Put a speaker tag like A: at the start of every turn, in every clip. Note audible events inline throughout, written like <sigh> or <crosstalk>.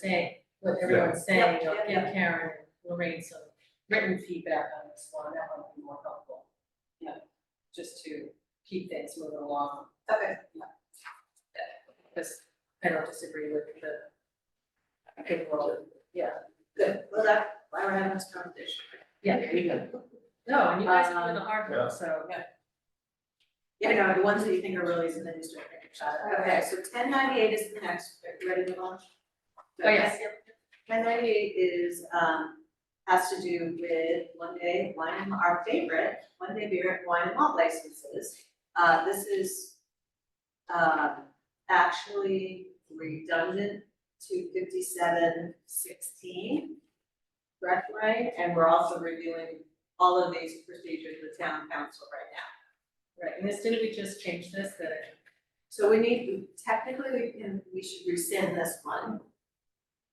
A: saying, what everyone's saying,
B: Yep,
A: I'll
B: yep,
A: give Karen and Lorraine some written feedback on this one, that might be more helpful. You know, just to keep things moving along,
B: Okay,
A: because I don't disagree with the overall, yeah.
B: good, well, that, why we're having this conversation.
A: Yeah,
C: There you go.
A: No, and you guys are doing the hard
D: Yeah.
A: one, so,
B: Yeah, no, the ones that you think are really, and then you start thinking about it. Okay, so ten ninety-eight is the next, are you ready to launch?
A: oh, yes,
B: Ten ninety-eight is, um, has to do with one day, wine, and- our favorite, one day beer, and wine and malt licenses. Uh, this is, um, actually redundant to fifty-seven sixteen. Correct, right? And we're also reviewing all of these procedures with town council right now.
A: right, and this, didn't we just change this, that
B: So we need, technically, we can, we should rescind this one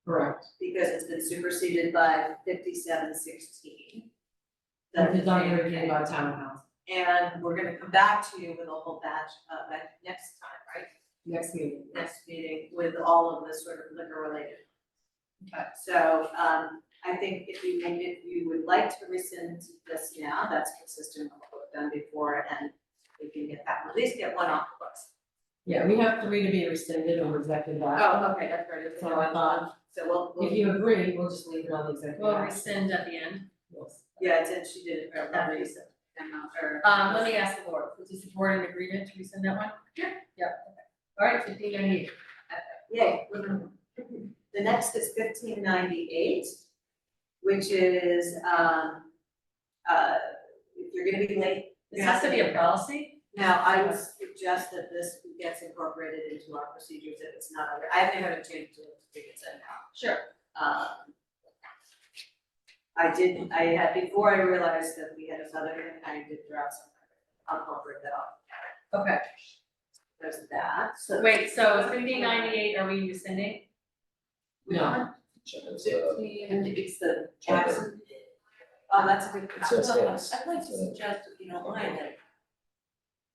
A: Correct.
B: because it's been superseded by fifty-seven sixteen.
C: That is on your agenda on town council,
B: And we're gonna come back to you with a whole batch of, at next time, right?
C: next meeting.
B: Next meeting with all of the sort of liquor related.
A: Okay.
B: So, um, I think if you, if you would like to rescind this now, that's consistent with what we've done before and we can get that, at least get one off the books.
C: Yeah, we have three to be rescinded or rejected by,
B: Oh, okay, that's right.
C: so I thought,
B: So we'll, we'll.
C: if you agree, we'll just leave it on the executive.
A: We'll
C: action.
A: rescind at the end.
C: Yes.
B: Yeah, it's, and she did it for that reason, and not for.
A: Um, let me ask the board, is the board in agreement to rescind that one? Yeah. Yep, okay. All right, fifteen ninety-eight.
B: Yay. The next is fifteen ninety-eight, which is, um, uh, if you're gonna be late.
A: This has to be a policy?
B: Now, I would suggest that this gets incorporated into our procedures if it's not, already- I haven't had a chance to figure it out now.
A: Sure.
B: Um, I did, I had, before I realized that we had this other, thing, I did draft some, I'll incorporate that, off.
A: Okay,
B: there's that.
A: so wait, so fifteen ninety-eight, are we rescinding?
C: No.
D: It's, uh,
C: And it's the
D: Jackson.
B: Oh, that's a good.
D: It's just, yes.
E: I'd like to suggest, if you don't mind, that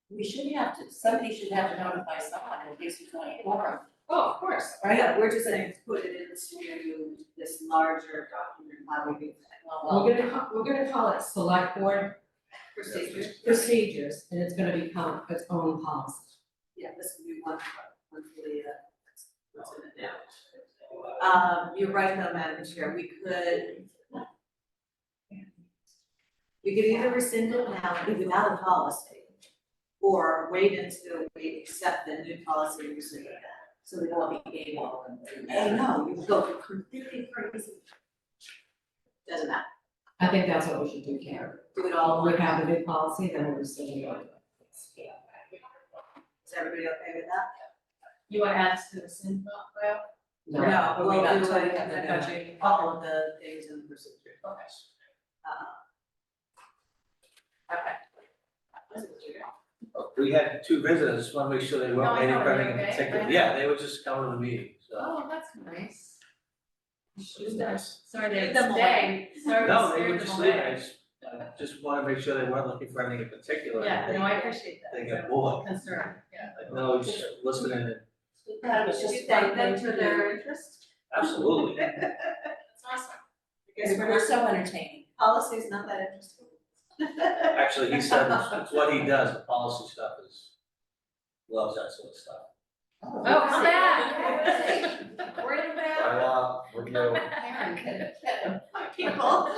E: we should have to, somebody should have to notify someone in case we don't have a quorum.
A: Oh, of course.
B: Right, yeah, we're just saying, put it into this larger document, how we do that.
C: We're gonna, ca- we're gonna call it select board
B: Procedure,
C: procedures, and it's gonna become its own policy.
B: yeah, this would be one, one for the, uh, what's in it now. Um, you're right though, Madam Chair, we could. We could either rescind it now, leave without a policy, or wait until we accept the new policy and rescind it then. So we won't be getting one of them. I know, you go completely crazy. Doesn't matter,
C: I think that's what we should do, Karen.
B: do it all
C: We
B: one time.
C: have a new policy, then we'll rescind the old one.
B: Is everybody okay with that?
A: You want to add to the rescind, well?
C: No,
B: No, we'll do it,
A: I got you.
B: all of the things in the procedure.
A: Okay.
B: Uh, Okay. That was a weird-
D: We had two visitors, just wanna make sure they
A: No,
D: weren't
A: I
D: waiting
A: know,
D: for
A: they're
D: anything
A: okay.
D: particular, yeah, they were just coming to the meeting, so.
A: Oh, that's nice.
D: It was nice.
A: Sorry
B: Leave
A: they
B: them
A: stay, sorry
D: No,
A: they
D: they
A: scared
D: were
A: them
D: just leaving,
A: away.
D: I just, I just wanna make sure they weren't looking for anything in particular,
A: Yeah, no,
D: they,
A: I appreciate that.
D: they got bored,
A: Concern, yeah.
D: like, no, just
A: <laughs>
D: listening and,
E: That was
B: Should
E: just
B: we thank
E: one
B: them
E: thing to
B: for
E: do.
B: their interest?
D: absolutely.
A: That's awesome.
B: Because
E: We're so entertaining.
B: policy is not that interesting. <laughs>
D: Actually, he said, it's it's what he does, the policy stuff is, loves that sort
A: <laughs>
D: of stuff.
A: Oh, come back.
E: Word of
D: I love,
A: <laughs>
D: what you,
E: Karen can, can,
B: <laughs> People.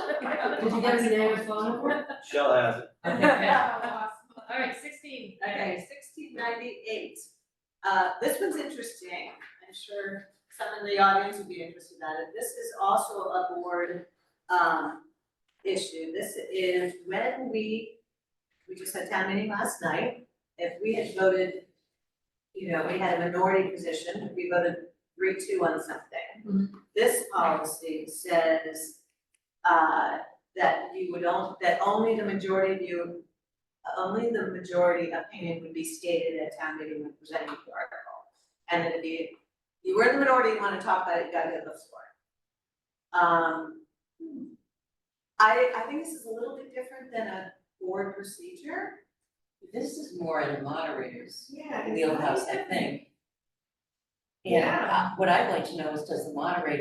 C: Did you get his name
A: <laughs>
C: and
B: <laughs>
C: phone number?
D: Shell has it,
C: Okay.
A: All right, sixteen.
B: Okay, sixteen ninety-eight. Uh, this one's interesting. I'm sure some in the audience would be interested in it. This is also a board, um, issue. This is when we, we just had town meeting last night. If we had voted, you know, we had a minority position, we voted three-two on something. This policy says, uh, that you would only, that only the majority of you only the majority opinion would be stated at town meeting when presenting the article. And then if you, you were in the minority, you wanna talk about it, you gotta go to the floor. Um, I, I think this is a little bit different than a board procedure.
E: this is more in the moderators
B: Yeah.
E: wheelhouse, I think. And uh, what I'd like to know is, does the moderator